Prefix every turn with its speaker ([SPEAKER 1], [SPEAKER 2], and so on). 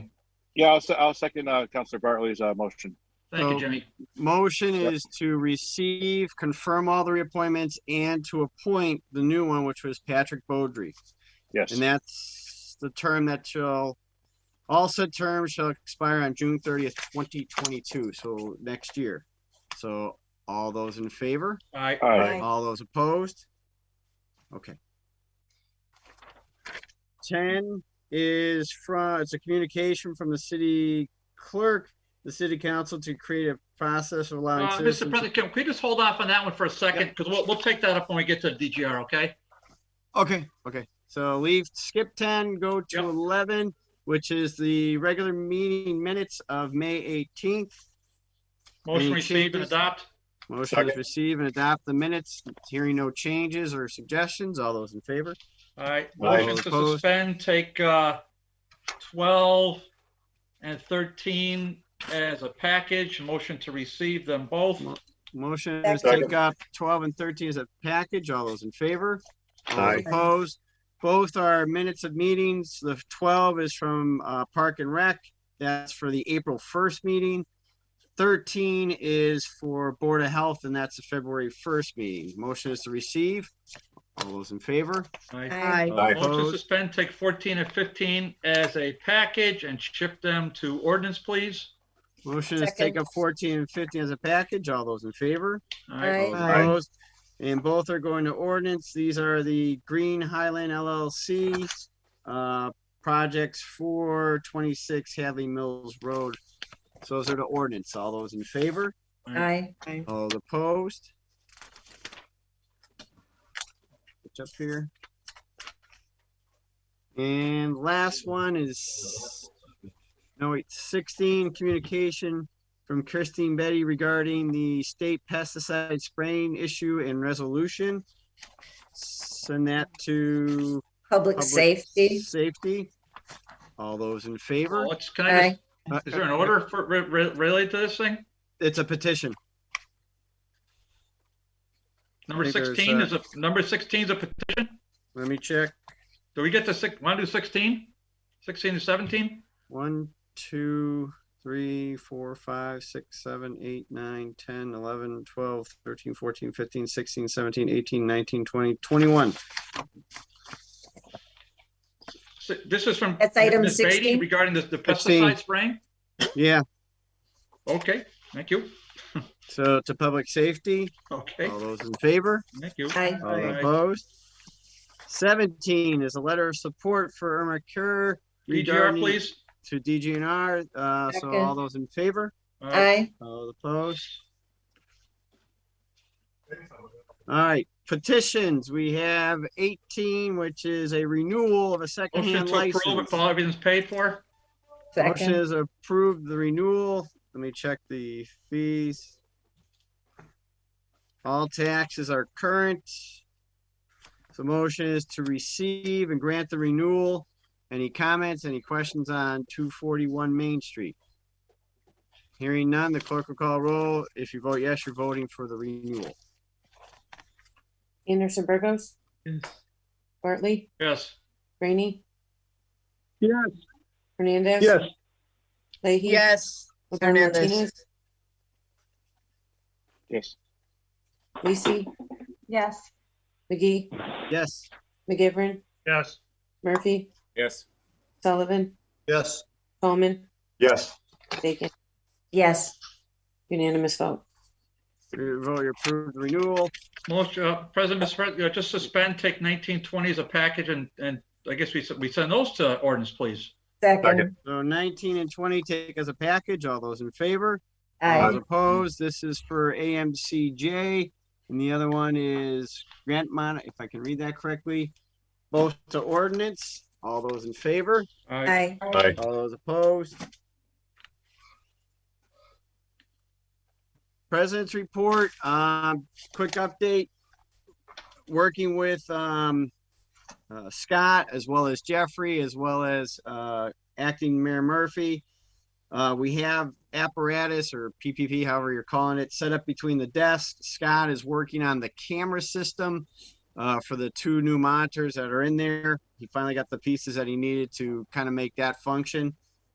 [SPEAKER 1] Yeah, I'll, se- I'll second, uh, Counselor Bartley's, uh, motion.
[SPEAKER 2] Thank
[SPEAKER 3] So-
[SPEAKER 2] you, Jimmy.
[SPEAKER 3] Motion
[SPEAKER 1] Yep.
[SPEAKER 3] is to receive, confirm all the reappointments and to appoint the new one, which was Patrick Beaudry.
[SPEAKER 1] Yes.
[SPEAKER 3] And that's the term that shall, all said terms shall expire on June thirtieth, twenty twenty-two, so next year. So all those in favor?
[SPEAKER 2] Aye.
[SPEAKER 1] All right.
[SPEAKER 3] All those opposed? Okay. Ten is from, it's a communication from the city clerk, the city council to create a process of allowing
[SPEAKER 2] Uh, Mr.
[SPEAKER 3] citizens.
[SPEAKER 2] President, can we just hold off on that one for a second? Because we'll, we'll take that up when we get to DGR, okay?
[SPEAKER 3] Okay, okay, so leave, skip ten, go to
[SPEAKER 2] Yep.
[SPEAKER 3] eleven, which is the regular meeting minutes of May eighteenth.
[SPEAKER 2] Motion
[SPEAKER 3] Any
[SPEAKER 2] received and
[SPEAKER 3] changes?
[SPEAKER 2] adopt.
[SPEAKER 3] Motion is
[SPEAKER 1] Second.
[SPEAKER 3] receive and adopt the minutes, hearing no changes or suggestions, all those in favor?
[SPEAKER 2] All right,
[SPEAKER 1] Aye.
[SPEAKER 2] motion to
[SPEAKER 3] Opposed?
[SPEAKER 2] suspend, take uh, 12 and 13 as a package, motion to receive them both.
[SPEAKER 3] Motion is
[SPEAKER 1] Second.
[SPEAKER 3] take up twelve and thirteen as a package. All those in favor? All those
[SPEAKER 1] Aye.
[SPEAKER 3] Opposed? Both are minutes of meetings. The twelve is from uh Park and Rec. That's for the April first meeting. Thirteen is for Board of Health and that's the February first meeting. Motion is to receive. All those in favor?
[SPEAKER 2] Aye.
[SPEAKER 4] Aye.
[SPEAKER 1] Aye.
[SPEAKER 2] Motion to
[SPEAKER 3] Opposed?
[SPEAKER 2] suspend, take 14 and 15 as a package and shift them to ordinance, please.
[SPEAKER 3] Motion is take
[SPEAKER 4] Second.
[SPEAKER 3] up fourteen and fifteen as a package. All those in favor?
[SPEAKER 2] All right,
[SPEAKER 3] All
[SPEAKER 4] Aye.
[SPEAKER 3] Opposed? And both are going to ordinance. These are the Green Highland LLC uh, projects for 26 Hadley Mills Road. So those are the ordinance. All those in favor?
[SPEAKER 4] Aye.
[SPEAKER 3] All opposed? It's up here. And last one is, no, wait, 16, communication from Christine Betty regarding the state pesticide spraying issue and resolution. Send that to
[SPEAKER 4] Public
[SPEAKER 3] Public
[SPEAKER 4] safety.
[SPEAKER 3] Safety. All those in favor?
[SPEAKER 2] Well, let's- can I just-
[SPEAKER 3] Uh,
[SPEAKER 2] is there an order for, re- re- related to this thing?
[SPEAKER 3] It's a petition.
[SPEAKER 2] Number
[SPEAKER 3] think there's,
[SPEAKER 2] 16
[SPEAKER 3] uh,
[SPEAKER 2] is a, number 16 is a, pet-
[SPEAKER 3] Let me check.
[SPEAKER 2] do we get to six, want to do 16? 16 to 17?
[SPEAKER 3] One, two, three, four, five, six, seven, eight, nine, ten, eleven, twelve, thirteen, fourteen, fifteen, sixteen, seventeen, eighteen, nineteen, twenty, twenty-one.
[SPEAKER 2] Si- This is from.
[SPEAKER 4] That's item
[SPEAKER 2] Ms. Beatty
[SPEAKER 4] 16?
[SPEAKER 2] Regarding the the
[SPEAKER 3] 16.
[SPEAKER 2] pesticide spraying?
[SPEAKER 3] Yeah,
[SPEAKER 2] Okay, thank you.
[SPEAKER 3] so to public safety,
[SPEAKER 2] Okay,
[SPEAKER 3] all those in favor,
[SPEAKER 2] thank you.
[SPEAKER 4] Aye.
[SPEAKER 3] all
[SPEAKER 2] Aye.
[SPEAKER 3] opposed. Seventeen is a letter of support for Irma Kerr
[SPEAKER 2] DGR,
[SPEAKER 3] regarding-
[SPEAKER 2] please.
[SPEAKER 3] to DGNR. Uh, so all
[SPEAKER 4] Second.
[SPEAKER 3] those in favor,
[SPEAKER 2] Aye.
[SPEAKER 4] Aye.
[SPEAKER 3] all opposed. All right, petitions. We have eighteen, which is a renewal of a
[SPEAKER 2] Motion
[SPEAKER 3] secondhand
[SPEAKER 2] to approve if
[SPEAKER 3] license.
[SPEAKER 2] all everything's paid for.
[SPEAKER 3] Motion
[SPEAKER 4] Second.
[SPEAKER 3] is approved the renewal. Let me check the fees. All taxes are current. So motion is to receive and grant the renewal. Any comments, any questions on two forty-one Main Street? Hearing none, the clerk will call roll. If you vote yes, you're voting for the renewal.
[SPEAKER 5] Anderson Burgos,
[SPEAKER 2] Yes.
[SPEAKER 5] Bartley,
[SPEAKER 2] Yes.
[SPEAKER 5] Rainey,
[SPEAKER 3] Yes.
[SPEAKER 5] Hernandez.
[SPEAKER 3] Yes.
[SPEAKER 5] Leahy.
[SPEAKER 4] Yes.
[SPEAKER 5] Lepone
[SPEAKER 4] Hernandez.
[SPEAKER 5] Martinez,
[SPEAKER 1] Yes.
[SPEAKER 5] Lisi,
[SPEAKER 4] Yes.
[SPEAKER 5] McGee,
[SPEAKER 3] Yes.
[SPEAKER 5] McGivern,
[SPEAKER 2] Yes.
[SPEAKER 5] Murphy,
[SPEAKER 6] Yes.
[SPEAKER 5] Sullivan,
[SPEAKER 6] Yes.
[SPEAKER 5] Coleman,
[SPEAKER 6] Yes.
[SPEAKER 5] Bacon,
[SPEAKER 4] Yes.
[SPEAKER 5] unanimous vote.
[SPEAKER 3] Your Vote you approve the renewal.
[SPEAKER 2] Motion, uh, President, Mr. Pres- uh, just suspend, take 1920 as a package and, and I guess we, s- we send those to ordinance, please.
[SPEAKER 4] Second.
[SPEAKER 3] So nineteen and twenty take as a package. All those in favor? All
[SPEAKER 4] Aye.
[SPEAKER 3] opposed, this is for AMCJ, and the other one is grant mon, if I can read that correctly. Both to ordinance, all those in favor,
[SPEAKER 2] Aye.
[SPEAKER 4] Aye.
[SPEAKER 3] all those opposed. President's report, um, quick update. Working with, um, uh, Scott as well as Jeffrey, as well as, uh, acting Mayor Murphy. Uh, we have apparatus or PPP, however you're calling it, set up between the desks. Scott is working on the camera system uh, for the two new monitors that are in there. He finally got the pieces that he needed to kind of make that function.